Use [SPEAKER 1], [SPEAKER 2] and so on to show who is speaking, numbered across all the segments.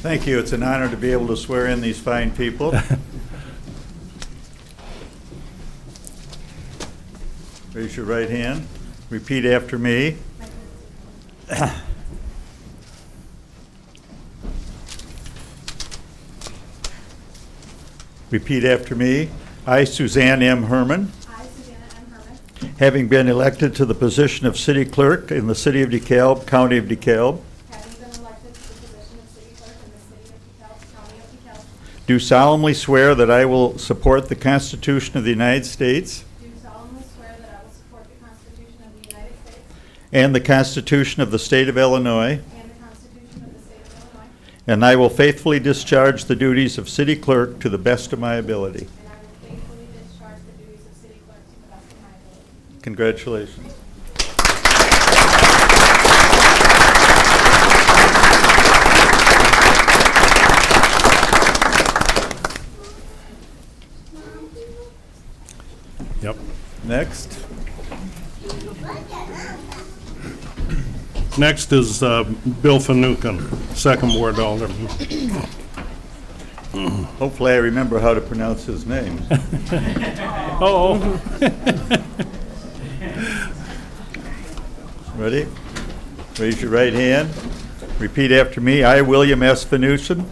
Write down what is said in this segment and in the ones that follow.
[SPEAKER 1] Thank you. It's an honor to be able to swear in these fine people. Raise your right hand. Repeat after me. Repeat after me. I, Suzanne M. Herman,
[SPEAKER 2] I, Susanna M. Herman,
[SPEAKER 1] having been elected to the position of city clerk in the city of DeKalb, county of DeKalb,
[SPEAKER 2] having been elected to the position of city clerk in the city of DeKalb, county of DeKalb,
[SPEAKER 1] Do solemnly swear that I will support the Constitution of the United States
[SPEAKER 2] do solemnly swear that I will support the Constitution of the United States
[SPEAKER 1] and the Constitution of the State of Illinois,
[SPEAKER 2] and the Constitution of the state of Illinois,
[SPEAKER 1] and I will faithfully discharge the duties of city clerk to the best of my ability.
[SPEAKER 2] and I will faithfully discharge the duties of city clerk to the best of my ability.
[SPEAKER 1] Congratulations.
[SPEAKER 3] Yep.
[SPEAKER 1] Next.
[SPEAKER 3] Next is uh, Bill Fanouken, Second Ward Alderman.
[SPEAKER 1] Hopefully I remember how to pronounce his name.
[SPEAKER 3] Oh,
[SPEAKER 1] Ready? Raise your right hand. Repeat after me. I, William S. Finucane,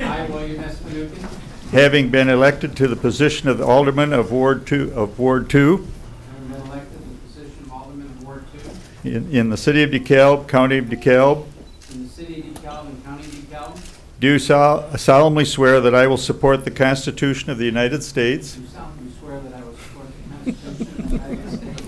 [SPEAKER 4] I, William S. Fanouken,
[SPEAKER 1] having been elected to the position of Alderman of Ward Two, of Ward Two
[SPEAKER 4] have been elected to the position of Alderman of Ward Two
[SPEAKER 1] in, in the city of DeKalb, county of DeKalb,
[SPEAKER 4] in the city of DeKalb and county of DeKalb,
[SPEAKER 1] Do sol- solemnly swear that I will support the Constitution of the United States
[SPEAKER 4] do solemnly swear that I will support the Constitution of the United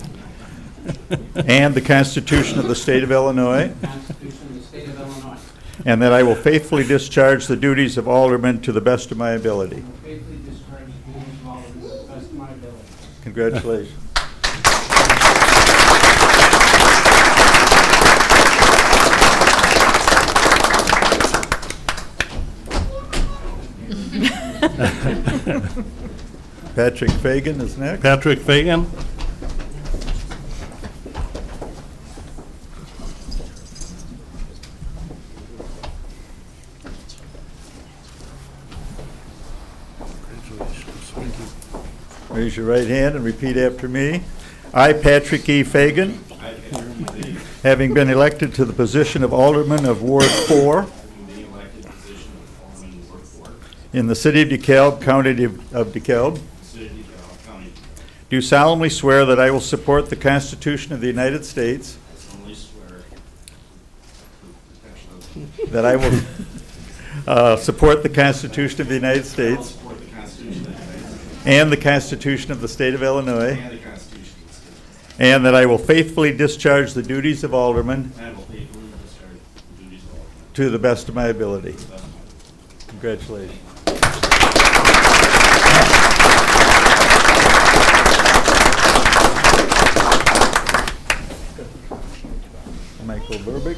[SPEAKER 4] States,
[SPEAKER 1] and the Constitution of the State of Illinois,
[SPEAKER 4] the Constitution of the state of Illinois,
[SPEAKER 1] and that I will faithfully discharge the duties of alderman to the best of my ability.
[SPEAKER 4] and faithfully discharge the duties of Alderman to the best of my ability.
[SPEAKER 1] Congratulations. Patrick Fagan is next.
[SPEAKER 3] Patrick Fagan?
[SPEAKER 1] Raise your right hand and repeat after me. I, Patrick E. Fagan, having been elected to the position of Alderman of Ward 4
[SPEAKER 5] the elected position of Alderman Ward Four,
[SPEAKER 1] in the city of DeKalb, county of of DeKalb,
[SPEAKER 5] City of County,
[SPEAKER 1] do solemnly swear that I will support the Constitution of the United States,
[SPEAKER 5] I solemnly swear the protection of-
[SPEAKER 1] that I will uh, support the Constitution of the United
[SPEAKER 5] I will
[SPEAKER 1] States
[SPEAKER 5] support the Constitution of the United States
[SPEAKER 1] and the Constitution of the state of Illinois,
[SPEAKER 5] and the Constitution of the State of Illinois,
[SPEAKER 1] and that I will faithfully discharge the duties of Alderman
[SPEAKER 5] and I will faithfully discharge the duties of Alderman
[SPEAKER 1] to the best of my ability.
[SPEAKER 5] to the best of my ability.
[SPEAKER 1] Congratulations. Michael Burbick.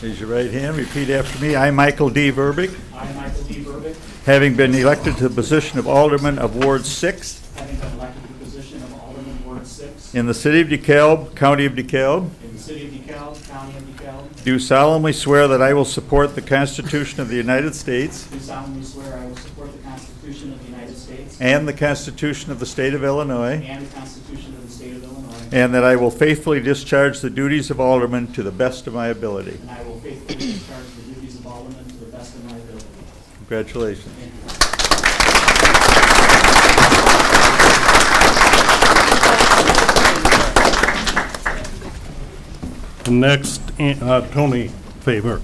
[SPEAKER 1] Raise your right hand, repeat after me. I, Michael D. Burbick,
[SPEAKER 6] I, Michael D. Burbick,
[SPEAKER 1] having been elected to the position of Alderman of Ward 6
[SPEAKER 6] having been elected to the position of Alderman Ward Six
[SPEAKER 1] in the city of DeKalb, county of DeKalb,
[SPEAKER 6] in the city of DeKalb, county of DeKalb,
[SPEAKER 1] do solemnly swear that I will support the Constitution of the United States
[SPEAKER 6] do solemnly swear I will support the Constitution of the United States
[SPEAKER 1] And the Constitution of the State of Illinois.
[SPEAKER 6] and the Constitution of the state of Illinois,
[SPEAKER 1] And that I will faithfully discharge the duties of alderman to the best of my ability.
[SPEAKER 6] and I will faithfully discharge the duties of Alderman to the best of my ability.
[SPEAKER 1] Congratulations.
[SPEAKER 6] Thank you.
[SPEAKER 3] And next, uh, Tony Faber.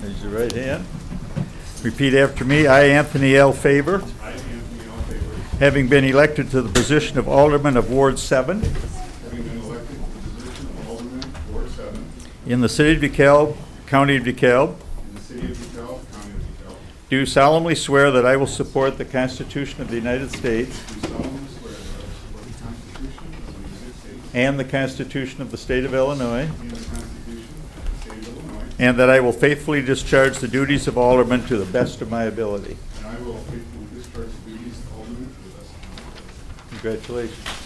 [SPEAKER 1] Raise your right hand. Repeat after me. I, Anthony L. Faber. Having been elected to the position of alderman of Ward 7
[SPEAKER 7] Having been elected to the position of Alderman, Ward 7,
[SPEAKER 1] in the city of DeKalb, county of DeKalb,
[SPEAKER 7] in the city of DeKalb, county of DeKalb,
[SPEAKER 1] do solemnly swear that I will support the Constitution of the United States
[SPEAKER 7] do solemnly swear that I will support the Constitution of the United States
[SPEAKER 1] and the Constitution of the State of Illinois.
[SPEAKER 7] and the Constitution of the state of Illinois,
[SPEAKER 1] And that I will faithfully discharge the duties of alderman to the best of my ability.
[SPEAKER 7] and I will faithfully discharge the duties of Alderman to the best of my ability.
[SPEAKER 1] Congratulations.